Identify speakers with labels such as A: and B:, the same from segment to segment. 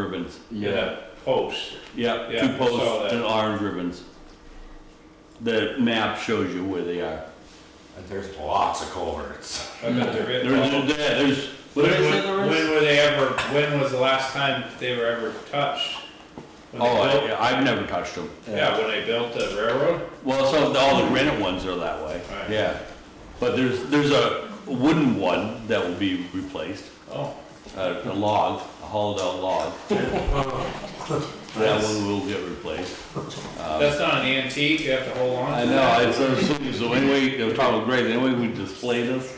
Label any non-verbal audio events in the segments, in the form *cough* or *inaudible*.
A: ribbons.
B: Yeah,
C: post.
A: Yeah,
C: Yeah,
A: two
C: I saw
A: posts
C: that.
A: and orange ribbons. The map shows you where they are.
B: and there's lots of culverts.
C: I bet there is.
A: There- there- there- There's,
C: When,
A: what did I say there
C: when,
A: is?
C: when were they ever, when was the last time they were ever touched? When they
A: Oh,
C: built-
A: I- I've never touched them.
C: Yeah, when they built the railroad?
A: Well, so the- all the granite ones are that way,
C: Right.
A: yeah. But there's, there's a wooden one that will be replaced,
C: Oh,
A: a a log, a hollowed out
C: *laughs*
A: log. That one will get replaced. Um,
C: that's not an antique, you have to hold on
A: I
C: to
A: know,
C: that.
A: it's sort of silly, so anyway, they were talking about great, anyway, we display this.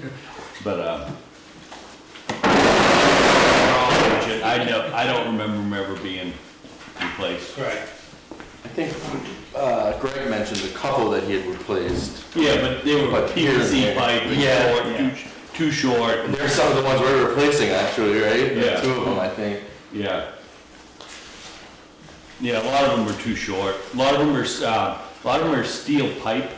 A: *laughs* But, uh, I don't, I don't remember them ever being replaced.
C: Right,
D: I think uh, Greg mentioned a couple that he had replaced.
A: Yeah, but they were
D: But here and
A: PVC
D: there.
A: pipe,
D: Yeah.
A: short, too, sh- too short,
D: And They're some of the ones we're replacing, actually, right?
A: Yeah.
D: Two of them, I think.
A: Yeah. Yeah, a lot of them are too short. A lot of them are, uh, a lot of them are steel pipe.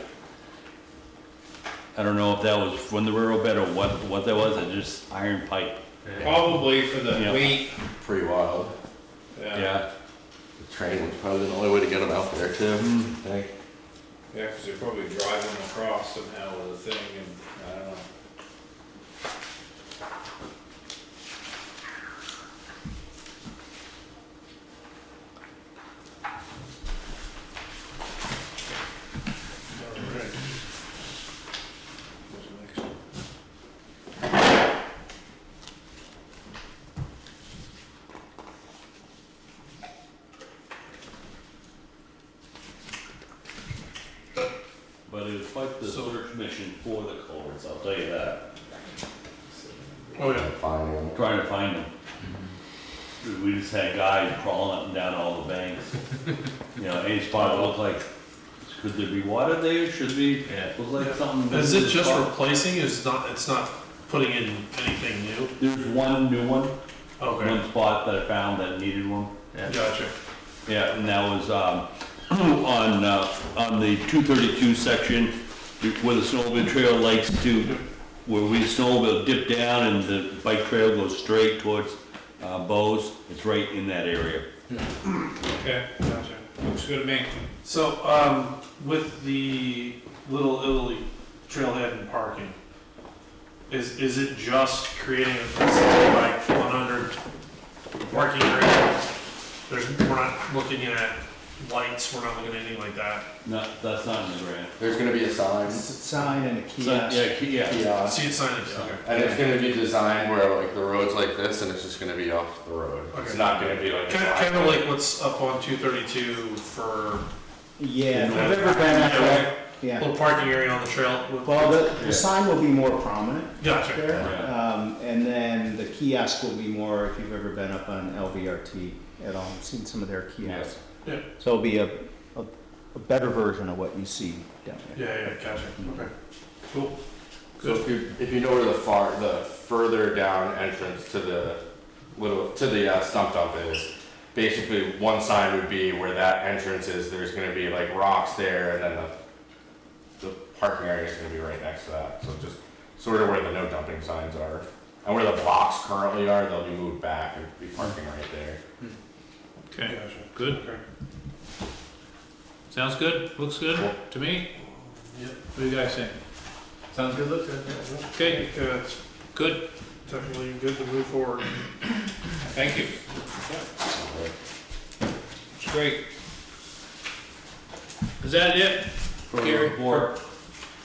A: I don't know if that was from the railroad bed or what, what that was, it's just iron pipe.
C: probably for the
A: Yeah.
C: wheat, uh,
D: Pretty wild.
C: yeah,
A: Yeah,
D: The train was probably the only way to get them out there, too.
B: Hmm.
D: I think.
C: yeah, because they're probably driving across somehow with a thing and, I don't know.
A: but it was quite the search mission for the culverts, I'll tell you that.
C: Oh, yeah.
D: Finding them.
A: Trying to find them.
E: Mm-hmm.
A: We just had guys crawling up and down all the banks. You know, any spot that looked like, could there be water there, should be, looked like something.
E: Is it just replacing, it's not, it's not putting in anything new?
A: There's one new one.
E: Okay,
A: one spot that I found that needed one.
E: gotcha.
A: Yeah, and that was, um, *clears throat* on, uh, on the two thirty-two section where the snowmobile trail likes to, where we snowmobile dip down and the bike trail goes straight towards, uh, Bose. It's right in that area.
C: Okay, gotcha, looks good to me.
E: So, um, with the Little Italy trailhead and parking, is, is it just creating a sixty by one hundred parking area? There's, we're not looking at lights, we're not looking at anything like that.
A: No, that's not in the grant.
D: There's going to be a sign.
F: It's a sign and a
A: So,
F: kiosk.
A: Yeah, key- yeah,
D: Yeah.
E: See it signing, okay.
D: And it's going to be designed where like the road's like this and it's just going to be off the road. It's
E: Okay.
D: not going to be like.
E: Kind, kind of like what's up on two thirty-two for
F: Yeah, if you've ever been up there,
E: a
F: yeah.
E: little parking area on the trail. with-
F: Well, the,
A: Yeah.
F: the sign will be more prominent
E: Gotcha,
F: there.
A: Yeah.
F: Um, and then the kiosk will be more, if you've ever been up on LVRT at all, seen some of their kiosks.
E: Yeah.
F: So it'll be a, a, a better version of what you see down there.
E: yeah, yeah, gotcha, okay, cool.
D: So if you, if you know where the far, the further down entrance to the little, to the uh, stump dump is, basically one sign would be where that entrance is, there's gonna be like rocks there and then the, the parking area is gonna be right next to that, so just sort of where the no dumping signs are. And where the blocks currently are, they'll be moved back and be parking right there.
C: Okay,
E: Gotcha.
C: good,
E: Okay.
C: sounds good, looks good
D: Cool.
C: to me,
E: Yep.
C: what do you guys think? Sounds good, looks good.
E: I
C: Okay,
E: think, uh, it's
C: good,
E: definitely good to move forward.
C: thank you. It's great. Is that it?
A: for
C: Gary,
A: report.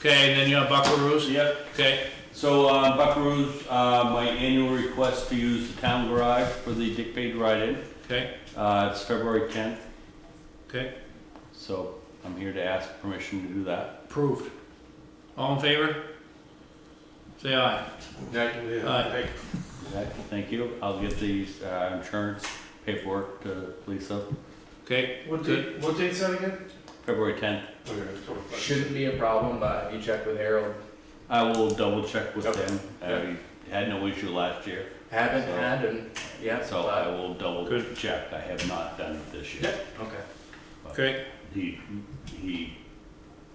C: Okay, and then you have Buckaroo's?
A: Yep.
C: Okay,
A: So, uh, Buckaroo's, uh, my annual request to use the town garage for the Dick Page ride-in.
C: okay,
A: Uh, it's February tenth,
C: okay,
A: so I'm here to ask permission to do that.
C: approved. All in favor? Say aye. Aye.
A: Okay, Thank you. I'll get these uh, insurance paperwork to Lisa,
C: Okay,
E: What
C: date-
E: date, what date's that again?
A: February 10th.
G: Shouldn't be a problem, but you check with Harold.
A: I will double check with
G: Okay.
A: them. I had no issue last year,
G: Haven't
A: So-
G: had and, yeah,
A: so I
G: but,
A: will double
C: Good.
A: check. I have not done it this year.
G: okay.
C: okay,
A: He, he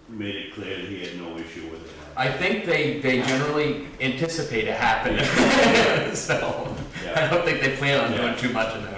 A: made it clear that he had no issue with it.
G: I think they, they generally anticipate it happening, so
A: Yeah.
G: I don't think they plan on
A: Yeah.
G: doing too much in there.